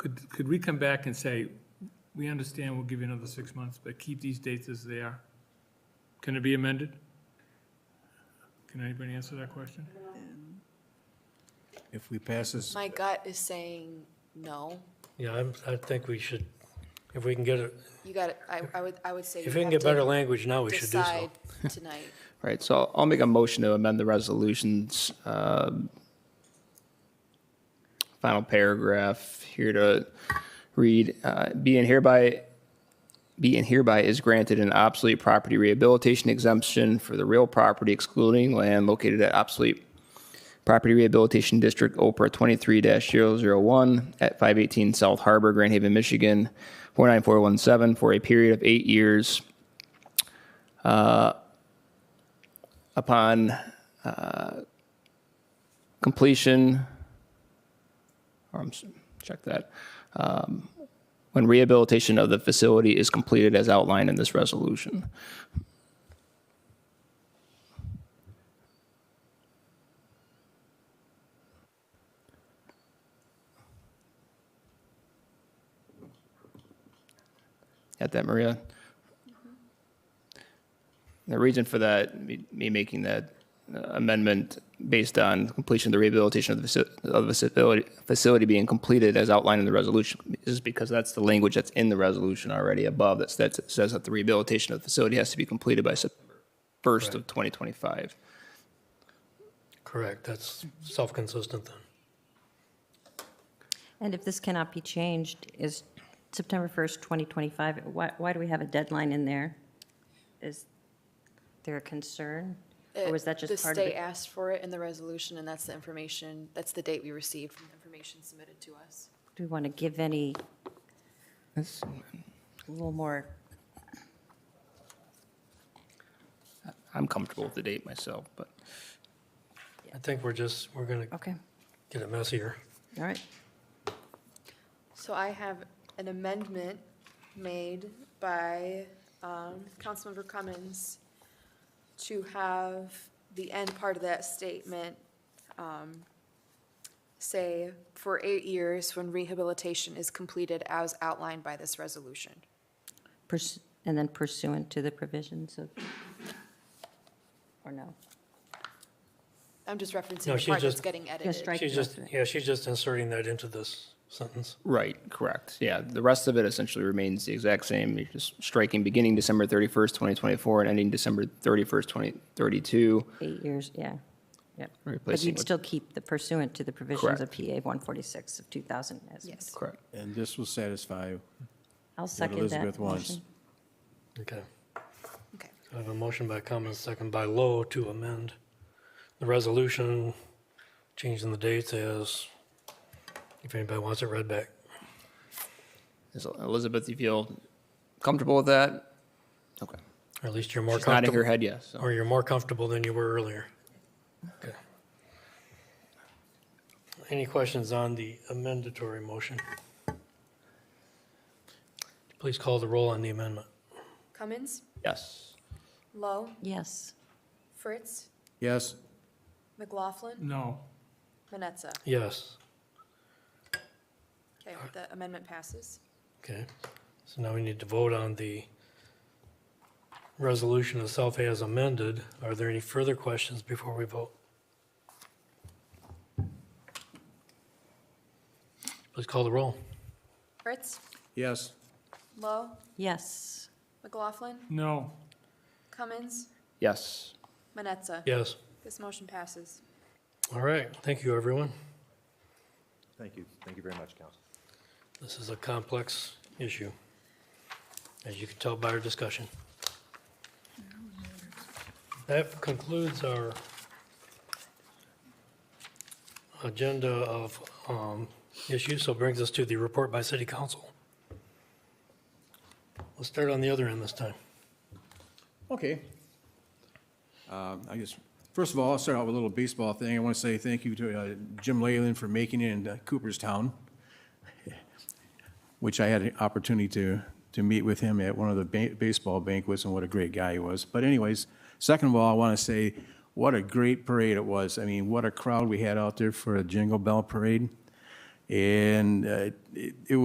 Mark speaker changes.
Speaker 1: Could, could we come back and say, we understand we'll give you another six months, but keep these dates as they are? Can it be amended? Can anybody answer that question?
Speaker 2: If we pass this,
Speaker 3: My gut is saying no.
Speaker 4: Yeah, I'm, I think we should, if we can get, a-
Speaker 3: You got, I, I would, I would say.
Speaker 4: if
Speaker 3: you
Speaker 4: we can
Speaker 3: have
Speaker 4: get better
Speaker 3: to
Speaker 4: language now, we should do so.
Speaker 3: Decide tonight.
Speaker 5: Right, so I'll make a motion to amend the resolution's um, final paragraph here to read, uh, "Be and hereby, be and hereby is granted an obsolete property rehabilitation exemption for the real property excluding land located at obsolete property rehabilitation district, OPRA 23-001 at 518 South Harbor, Grand Haven, Michigan, 49417, for a period of eight years upon uh, completion, or I'm, s- check that, um, when rehabilitation of the facility is completed as outlined in this resolution. Got that, Maria? The reason for that, me me making that uh, amendment based on completion of the rehabilitation of the faci- of the facility, facility being completed as outlined in the resolution is because that's the language that's in the resolution already above that says, says that the rehabilitation of the facility has to be completed by September 1st of 2025.
Speaker 4: Correct, that's self-consistent then.
Speaker 6: And if this cannot be changed, is September 1st, 2025, why, why do we have a deadline in there? Is there a concern? Or was that
Speaker 3: Uh, The
Speaker 6: just part of
Speaker 3: state
Speaker 6: it?
Speaker 3: asked for it in the resolution, and that's the information, that's the date we received from the information submitted to us.
Speaker 6: Do we want to give any, a little more,
Speaker 5: I'm comfortable with the date myself, but
Speaker 4: I think we're just, we're gonna
Speaker 6: okay,
Speaker 4: get it messier.
Speaker 6: all right.
Speaker 3: So I have an amendment made by um, Councilmember Cummins to have the end part of that statement um, say, for eight years when rehabilitation is completed as outlined by this resolution.
Speaker 6: Purs- And then pursuant to the provisions of, or no?
Speaker 3: I'm just referencing
Speaker 4: No,
Speaker 3: the
Speaker 4: she's
Speaker 3: part that's
Speaker 4: just-
Speaker 3: getting
Speaker 6: Yeah,
Speaker 3: edited.
Speaker 6: strike
Speaker 4: She's
Speaker 6: the
Speaker 4: just,
Speaker 6: rest of it.
Speaker 4: yeah, she's just inserting that into this sentence.
Speaker 5: Right, correct. Yeah, the rest of it essentially remains the exact same. You're just striking beginning December 31st, 2024 and ending December 31st, 2032.
Speaker 6: Eight years, yeah, yep. But
Speaker 5: Replacing
Speaker 6: you'd
Speaker 5: with-
Speaker 6: still keep the pursuant to the provisions of
Speaker 5: Correct.
Speaker 6: PA 146 of 2000 as.
Speaker 3: Yes.
Speaker 5: Correct.
Speaker 2: and this will satisfy,
Speaker 6: I'll second that
Speaker 2: Elizabeth wants.
Speaker 6: motion.
Speaker 4: Okay.
Speaker 3: Okay.
Speaker 4: I have a motion by Cummins, second by Lowe to amend the resolution, changing the dates as, if anybody wants it read back.
Speaker 5: Is Elizabeth, you feel comfortable with that? Okay.
Speaker 4: Or at least you're more
Speaker 5: She's nodding her
Speaker 4: comfortable,
Speaker 5: head, yes. so-
Speaker 4: or you're more comfortable than you were earlier. Okay. Any questions on the amendatory motion? Please call the roll on the amendment.
Speaker 3: Cummins,
Speaker 5: Yes.
Speaker 3: Lowe,
Speaker 6: Yes.
Speaker 3: Fritz,
Speaker 2: yes,
Speaker 3: McLaughlin,
Speaker 1: No.
Speaker 3: Manetza.
Speaker 4: Yes.
Speaker 3: Okay, the amendment passes.
Speaker 4: Okay, so now we need to vote on the resolution itself as amended. Are there any further questions before we vote? Please call the roll.
Speaker 3: Fritz,
Speaker 2: yes,
Speaker 3: Lowe,
Speaker 6: Yes.
Speaker 3: McLaughlin,
Speaker 1: No.
Speaker 3: Cummins,
Speaker 5: Yes.
Speaker 3: Manetza.
Speaker 4: Yes,
Speaker 3: This motion passes.
Speaker 4: all right, thank you, everyone.
Speaker 7: Thank you. Thank you very much, Council.
Speaker 4: This is a complex issue, as you can tell by our discussion. That concludes our agenda of um, issues, so brings us to the report by City Council. Let's start on the other end this time.
Speaker 2: okay. Um, I guess, first of all, I'll start out with a little baseball thing. I want to say thank you to uh, Jim Leyland for making it in uh, Cooperstown, which I had an opportunity to, to meet with him at one of the ba- baseball banquets, and what a great guy he was. But anyways, second of all, I want to say, what a great parade it was. I mean, what a crowd we had out there for a Jingle Bell Parade. And uh, it it